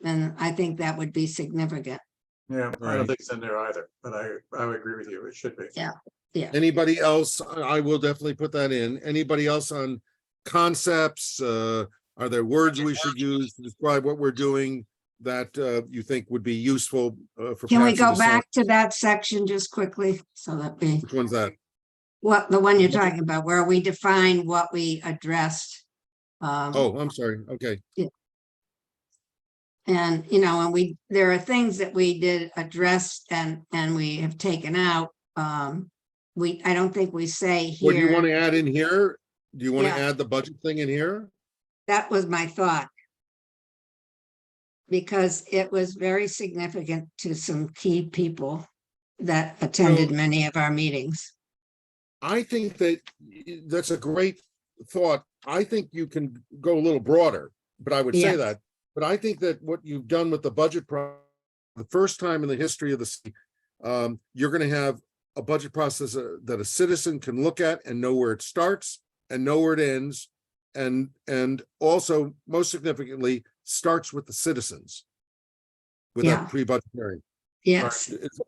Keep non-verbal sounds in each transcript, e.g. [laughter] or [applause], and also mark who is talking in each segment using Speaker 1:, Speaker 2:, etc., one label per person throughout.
Speaker 1: then I think that would be significant.
Speaker 2: Yeah, I don't
Speaker 3: Right.
Speaker 2: think it's in there either, but I, I would agree with you. It should be.
Speaker 3: Anybody else? I I will definitely put that in. Anybody else on concepts? Uh, are there words we should use to describe what we're doing that uh you think would be useful uh for?
Speaker 1: Can we
Speaker 3: Patsy
Speaker 1: go
Speaker 3: to say?
Speaker 1: back to that section just quickly? So that we,
Speaker 3: Which one's that?
Speaker 1: what, the one you're talking about, where we define what we addressed. um,
Speaker 3: Oh, I'm sorry. Okay,
Speaker 1: And, you know, and we, there are things that we did address and, and we have taken out. Um, we, I don't think we say
Speaker 3: what do you want
Speaker 1: here,
Speaker 3: to add in here? Do you want to
Speaker 1: Yeah.
Speaker 3: add the budget thing in here?
Speaker 1: that was my thought. Because it was very significant to some key people that attended many of our meetings.
Speaker 3: I think that y- that's a great thought. I think you can go a little broader, but I would say
Speaker 1: Yeah.
Speaker 3: that. But I think that what you've done with the budget pro, the first time in the history of the city, um, you're gonna have a budget process uh, that a citizen can look at and know where it starts and know where it ends. And, and also most significantly, starts with the citizens. With
Speaker 1: Yeah.
Speaker 3: that pre-budget hearing.
Speaker 1: Yes,
Speaker 3: It's-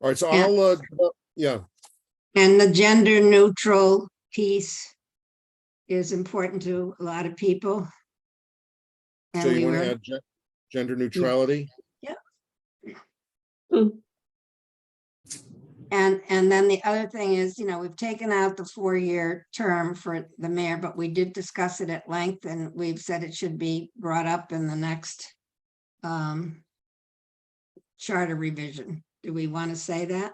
Speaker 3: All right, so
Speaker 1: Yeah.
Speaker 3: I'll, uh, yeah,
Speaker 1: and the gender neutral piece is important to a lot of people.
Speaker 3: so
Speaker 1: And we
Speaker 3: you wanna
Speaker 1: were,
Speaker 3: add gen- gender neutrality?
Speaker 1: and, and then the other thing is, you know, we've taken out the four-year term for the mayor, but we did discuss it at length and we've said it should be brought up in the next um charter revision. Do we want to say that?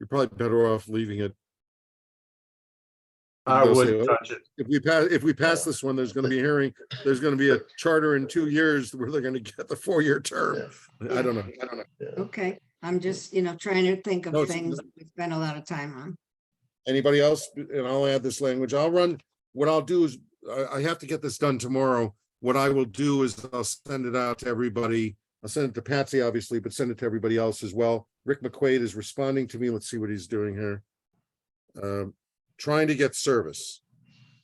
Speaker 3: You're probably better off leaving it.
Speaker 2: I
Speaker 3: They'll say,
Speaker 2: wouldn't
Speaker 3: "Oh,
Speaker 2: touch it.
Speaker 3: If we pass, if we pass this one, there's gonna be a hearing, there's gonna be a charter in two years where they're gonna get the four-year term. I don't know, I don't know.
Speaker 1: Okay, I'm just, you know, trying to think
Speaker 3: No,
Speaker 1: of
Speaker 3: it's-
Speaker 1: things that we spent a lot of time on.
Speaker 3: Anybody else? And I'll add this language. I'll run, what I'll do is, I, I have to get this done tomorrow. What I will do is I'll send it out to everybody. I'll send it to Patsy, obviously, but send it to everybody else as well. Rick McQuaid is responding to me. Let's see what he's doing here. Um, trying to get service.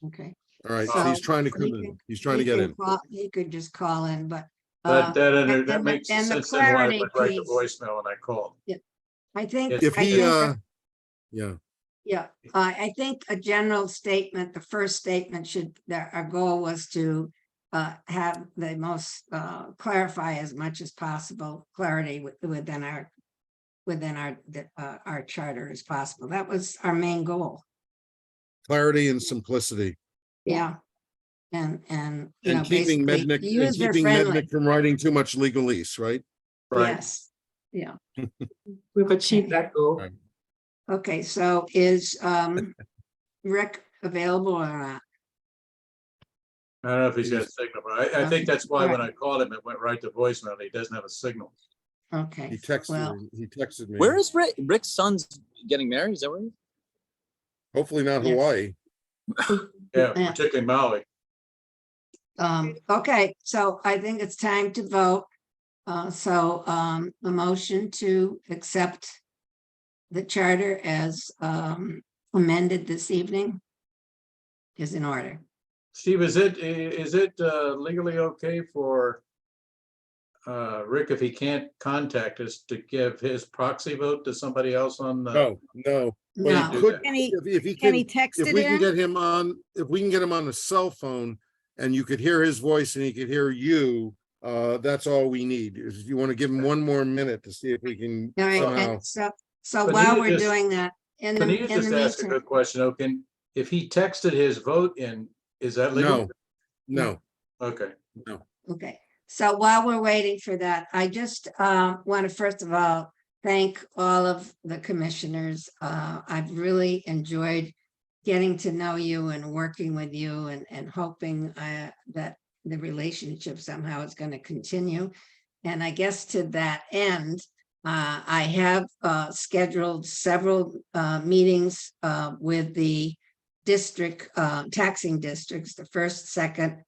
Speaker 1: Okay.
Speaker 3: All right,
Speaker 1: So,
Speaker 3: he's trying to come
Speaker 1: he
Speaker 3: in.
Speaker 1: can-
Speaker 3: He's trying to
Speaker 1: He
Speaker 3: get
Speaker 1: can
Speaker 3: in.
Speaker 1: call- He could just call in, but uh,
Speaker 2: That, that, inter-
Speaker 1: and
Speaker 2: that
Speaker 1: the-
Speaker 2: makes
Speaker 1: and the
Speaker 2: sense then why I
Speaker 1: clarity
Speaker 2: would write the
Speaker 1: piece.
Speaker 2: voicemail when I called.
Speaker 1: I think.
Speaker 2: If
Speaker 3: If
Speaker 1: I
Speaker 3: he,
Speaker 1: think-
Speaker 3: uh, yeah,
Speaker 1: Yeah, I, I think a general statement, the first statement should, that our goal was to uh, have the most, uh, clarify as much as possible clarity wi- within our, within our, the, uh, our charter as possible. That was our main goal.
Speaker 3: clarity and simplicity
Speaker 1: Yeah. And, and. you know,
Speaker 3: and keeping
Speaker 1: basically
Speaker 3: Mednick, and keeping
Speaker 1: user-friendly.
Speaker 3: Mednick from writing too much legalese, right?
Speaker 2: Right,
Speaker 1: Yes.
Speaker 4: [laughs] We've achieved that goal.
Speaker 3: Right.
Speaker 1: Okay, so is
Speaker 3: [laughs]
Speaker 1: um Rick available or not?
Speaker 2: I don't know if he's got a signal, but I, I
Speaker 1: Um,
Speaker 2: think that's why when
Speaker 1: Alright.
Speaker 2: I called him, it went right to voicemail, and he doesn't have a signal.
Speaker 1: Okay.
Speaker 3: He texted,
Speaker 1: Well-
Speaker 3: me- he texted me.
Speaker 5: Where is Rick? Rick's son's getting married? Is that where?
Speaker 3: Hopefully not
Speaker 1: Yeah.
Speaker 3: Hawaii.
Speaker 2: Yeah,
Speaker 1: Yeah.
Speaker 2: particularly Maui.
Speaker 1: Um, okay, so I think it's time to vote. Uh, so, um, the motion to accept the charter as, um, amended this evening is in order.
Speaker 2: Steve, is it, i- is it uh, legally okay for uh, Rick, if he can't contact us, to give his proxy vote to somebody else on the?
Speaker 3: No, no. Well,
Speaker 1: No,
Speaker 3: he
Speaker 2: No.
Speaker 3: could,
Speaker 6: Can he,
Speaker 3: if, if he
Speaker 6: can
Speaker 3: can,
Speaker 6: he
Speaker 3: if
Speaker 6: text it
Speaker 3: we can
Speaker 6: in?
Speaker 3: get him on, if we can get him on a cell phone and you could hear his voice and he could hear you, uh, that's all we need. If you want to give him one more minute to see if we can
Speaker 1: all right,
Speaker 3: somehow.
Speaker 1: and so, so
Speaker 2: But
Speaker 1: while
Speaker 2: you
Speaker 1: we're
Speaker 2: just-
Speaker 1: doing that, in the,
Speaker 2: Benita
Speaker 1: in the
Speaker 2: just asked a
Speaker 1: meantime,
Speaker 2: good question, though. Can if he texted his vote in, is that legal?
Speaker 3: No, no.
Speaker 2: Okay,
Speaker 1: Okay, so while we're waiting for that, I just want to first of all, thank all of the commissioners. Uh, I've really enjoyed getting to know you and working with you and, and hoping uh, that the relationship somehow is going to continue. And I guess to that end, uh, I have uh, scheduled several uh, meetings uh, with the district, uh, taxing districts, the first, second,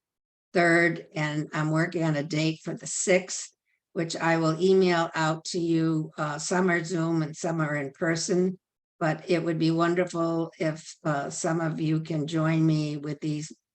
Speaker 1: third, and I'm working on a date for the sixth, which I will email out to you. Uh, some are Zoom and some are in person. But it would be wonderful if uh, some of you can join me with these